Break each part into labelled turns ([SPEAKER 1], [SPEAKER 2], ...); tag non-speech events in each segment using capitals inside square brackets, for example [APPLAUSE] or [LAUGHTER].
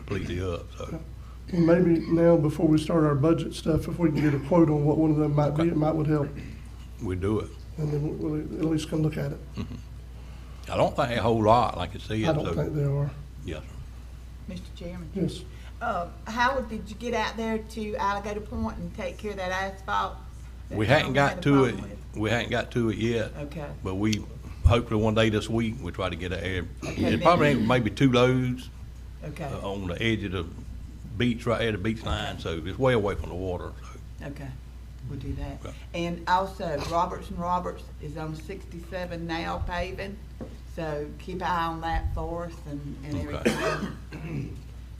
[SPEAKER 1] completely up, so.
[SPEAKER 2] Maybe now, before we start our budget stuff, if we can get a quote on what one of them might be, it might would help.
[SPEAKER 1] we do it.
[SPEAKER 2] And then we'll at least come look at it.
[SPEAKER 1] I don't think a whole lot, like you see.
[SPEAKER 2] I don't think there are.
[SPEAKER 1] Yes,
[SPEAKER 3] Mr. Chairman.
[SPEAKER 2] Yes.
[SPEAKER 3] Uh, Howard, did you get out there to Alligator Point and take care of that asphalt? that
[SPEAKER 1] we hadn't
[SPEAKER 3] y'all had
[SPEAKER 1] got
[SPEAKER 3] a
[SPEAKER 1] to it,
[SPEAKER 3] problem
[SPEAKER 1] we hadn't got to it yet.
[SPEAKER 3] Okay.
[SPEAKER 1] But we, hopefully one day this week, we try to get a, air-
[SPEAKER 3] Okay,
[SPEAKER 1] it probably ain't maybe two loads
[SPEAKER 3] with? Okay,
[SPEAKER 1] uh, on the edge of the beach, right there, the beach line, so it's way away from the water, so.
[SPEAKER 3] okay, we'll do that.
[SPEAKER 1] Okay.
[SPEAKER 3] And also Roberts and Roberts is on sixty-seven now paving, so keep an eye on that for us and, and
[SPEAKER 1] Okay.
[SPEAKER 3] everything.
[SPEAKER 1] [COUGHS]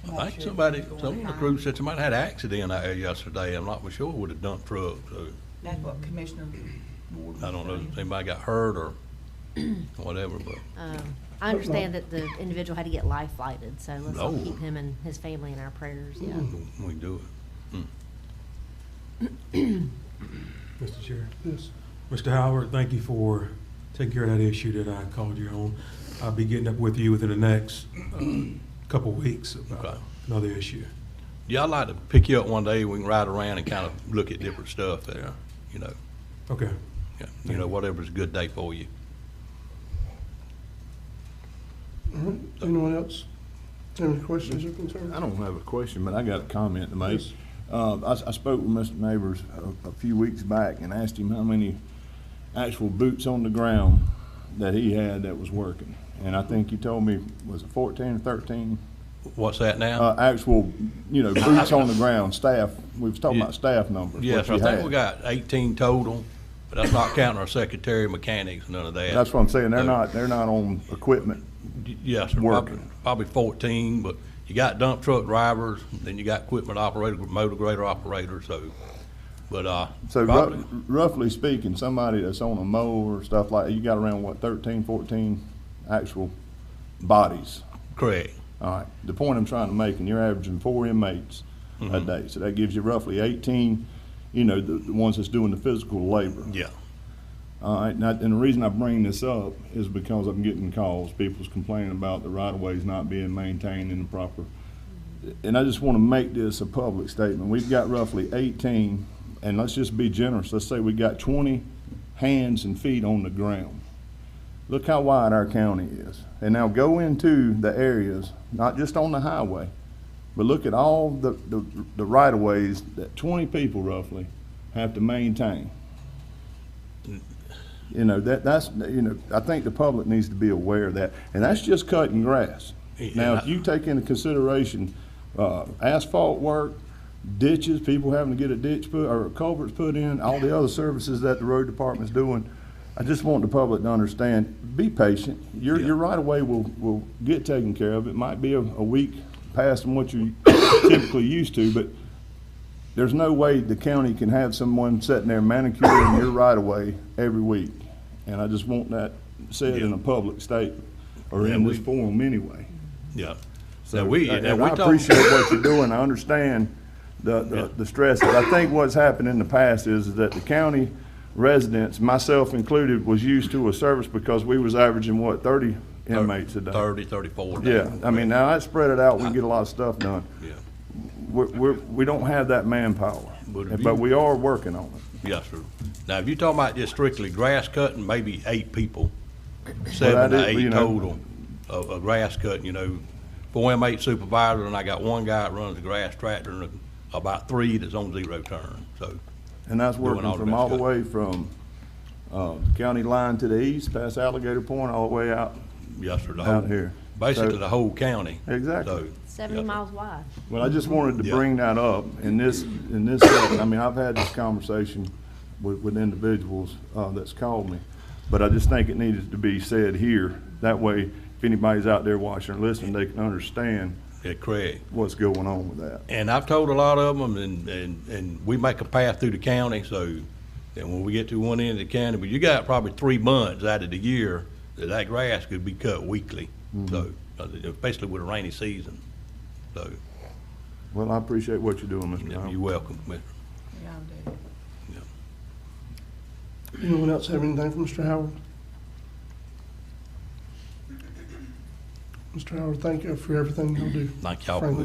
[SPEAKER 3] I'm
[SPEAKER 1] I
[SPEAKER 3] not
[SPEAKER 1] think
[SPEAKER 3] sure
[SPEAKER 1] somebody,
[SPEAKER 3] if it's
[SPEAKER 1] some of
[SPEAKER 3] going
[SPEAKER 1] the
[SPEAKER 3] on.
[SPEAKER 1] crew said somebody had an accident out there yesterday, I'm not for sure with a dump truck, so
[SPEAKER 3] That's what Commissioner Ward was
[SPEAKER 1] I don't know
[SPEAKER 3] saying.
[SPEAKER 1] if anybody got hurt or [CLEARS THROAT] whatever, but.
[SPEAKER 4] Um, I understand that the individual had to get life flighted, so let's all
[SPEAKER 1] No.
[SPEAKER 4] keep him and his family in our prayers, yeah.
[SPEAKER 3] Oh.
[SPEAKER 1] We do it.
[SPEAKER 5] Mr. Chair.
[SPEAKER 2] Yes.
[SPEAKER 5] Mr. Howard, thank you for taking care of that issue that I called you on. I'll be getting up with you within the next uh, couple weeks
[SPEAKER 1] Okay.
[SPEAKER 5] about another issue.
[SPEAKER 1] Yeah, I'd like to pick you up one day, we can ride around and kind of look at different stuff there, you know,
[SPEAKER 5] Okay.
[SPEAKER 1] Yeah, you know, whatever's a good day for you.
[SPEAKER 2] All right. Mm-hmm. Anyone else? Any questions or concerns?
[SPEAKER 6] I don't have a question, but I got a comment to make.
[SPEAKER 2] Yes.
[SPEAKER 6] Uh, I, s- I spoke with Mr. Neighbors a, a few weeks back and asked him how many actual boots on the ground that he had that was working. And I think he told me, was it fourteen or thirteen?
[SPEAKER 1] What's that now?
[SPEAKER 6] Uh, actual, you know, boots on the ground, staff, we was talking about staff numbers.
[SPEAKER 1] Yes, I
[SPEAKER 6] what you
[SPEAKER 1] think
[SPEAKER 6] had.
[SPEAKER 1] we got eighteen total, but that's not counting our secretary, mechanics, none of that.
[SPEAKER 6] That's what I'm saying, they're
[SPEAKER 1] No.
[SPEAKER 6] not, they're not on equipment.
[SPEAKER 1] Y- Yes, sir,
[SPEAKER 6] Working.
[SPEAKER 1] probably, probably fourteen, but you got dump truck drivers, then you got equipment operator, motor grader operator, so, but, uh.
[SPEAKER 6] So
[SPEAKER 1] probably-
[SPEAKER 6] rough- roughly speaking, somebody that's on a mower or stuff like, you got around, what, thirteen, fourteen actual bodies?
[SPEAKER 1] Correct,
[SPEAKER 6] All right, the point I'm trying to make, and you're averaging four inmates a day, so that gives you roughly eighteen, you know, the, the ones that's doing the physical labor.
[SPEAKER 1] yeah,
[SPEAKER 6] All right, and I- and the reason I bring this up is because I'm getting calls, people's complaining about the right-of-ways not being maintained in the proper. And I just want to make this a public statement, we've got roughly eighteen, and let's just be generous, let's say we got twenty hands and feet on the ground. Look how wide our county is, and now go into the areas, not just on the highway, but look at all the, the, the right-of-ways that twenty people roughly have to maintain. You know, that, that's, you know, I think the public needs to be aware of that, and that's just cutting grass.
[SPEAKER 1] Yeah.
[SPEAKER 6] Now, if you take into consideration, uh, asphalt work, ditches, people having to get a ditch put, or culverts put in, all the other services that the road department's doing, I just want the public to understand, be patient, your,
[SPEAKER 1] Yeah.
[SPEAKER 6] your right-of-way will, will get taken care of, it might be a, a week past from what you're [COUGHS] typically used to, but there's no way the county can have someone sitting there manicuring your right of way every week. And I just want that said in a public statement, or in
[SPEAKER 1] Yeah,
[SPEAKER 6] this
[SPEAKER 1] we-
[SPEAKER 6] forum anyway.
[SPEAKER 1] yeah.
[SPEAKER 6] So, uh,
[SPEAKER 1] Now, we,
[SPEAKER 6] and
[SPEAKER 1] now, we
[SPEAKER 6] I
[SPEAKER 1] talk-
[SPEAKER 6] appreciate what you're doing, I understand the,
[SPEAKER 1] Yeah.
[SPEAKER 6] the, the stresses. I think what's happened in the past is, is that the county residents, myself included, was used to a service because we was averaging, what, thirty inmates a day?
[SPEAKER 1] Thirty, thirty-four. now.
[SPEAKER 6] Yeah, I mean, now I spread it out, we can get a lot of stuff done
[SPEAKER 1] Yeah.
[SPEAKER 6] we're, we're, we don't have that manpower,
[SPEAKER 1] But if
[SPEAKER 6] but
[SPEAKER 1] you-
[SPEAKER 6] we are working on it.
[SPEAKER 1] Yes, sir. Now, if you're talking about just strictly grass cutting, maybe eight people, seven to
[SPEAKER 6] is, you
[SPEAKER 1] eight
[SPEAKER 6] know-
[SPEAKER 1] total of, of grass cutting, you know. Four M8 supervisor, and I got one guy that runs a grass tractor, and about three that's on zero turn, so,
[SPEAKER 6] And that's
[SPEAKER 1] Doing all
[SPEAKER 6] working
[SPEAKER 1] the
[SPEAKER 6] from
[SPEAKER 1] best
[SPEAKER 6] all the
[SPEAKER 1] good.
[SPEAKER 6] way from, uh, county line to the east, past Alligator Point, all the way out.
[SPEAKER 1] yes, sir. the
[SPEAKER 6] Out
[SPEAKER 1] whole-
[SPEAKER 6] here.
[SPEAKER 1] Basically,
[SPEAKER 6] So-
[SPEAKER 1] the whole county.
[SPEAKER 6] Exactly.
[SPEAKER 1] So,
[SPEAKER 4] Seventy
[SPEAKER 1] yes, sir.
[SPEAKER 4] miles wide.
[SPEAKER 6] Well, I just wanted to
[SPEAKER 1] Yeah.
[SPEAKER 6] bring that up in this, in this setting. I mean, I've had this conversation with, with individuals, uh, that's called me. But I just think it needed to be said here. That way, if anybody's out there watching or listening, they can understand
[SPEAKER 1] Yeah, Craig.
[SPEAKER 6] what's going on with that.
[SPEAKER 1] And I've told a lot of them, and, and, and we make a path through the county, so, and when we get to one end of the county, but you got probably three months out of the year that that grass could be cut weekly, so, uh, especially with a rainy season, so,
[SPEAKER 6] Well, I appreciate what you're doing, Mr. Howard.
[SPEAKER 1] you're welcome, Mr.
[SPEAKER 3] Yeah, I'll do it.
[SPEAKER 1] Mm-hmm.
[SPEAKER 2] Anyone else have anything for Mr. Howard? Mr. Howard, thank you for everything you do.
[SPEAKER 1] Thank y'all for
[SPEAKER 2] Franklin.